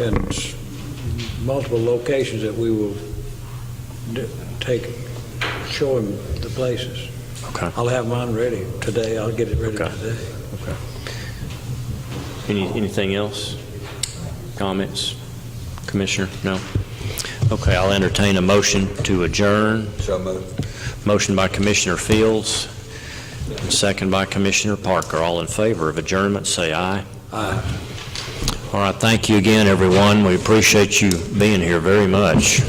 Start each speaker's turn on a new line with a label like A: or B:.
A: in s- multiple locations that we will d- take, show him the places.
B: Okay.
A: I'll have mine ready today, I'll get it ready
B: Okay.
A: today.
B: Any, anything else? Comments? Commissioner? No? Okay, I'll entertain a motion to adjourn.
C: So moved.
B: Motion by Commissioner Fields, second by Commissioner Parker. All in favor of adjournment, say aye.
A: Aye.
B: All right, thank you again, everyone. We appreciate you being here very much.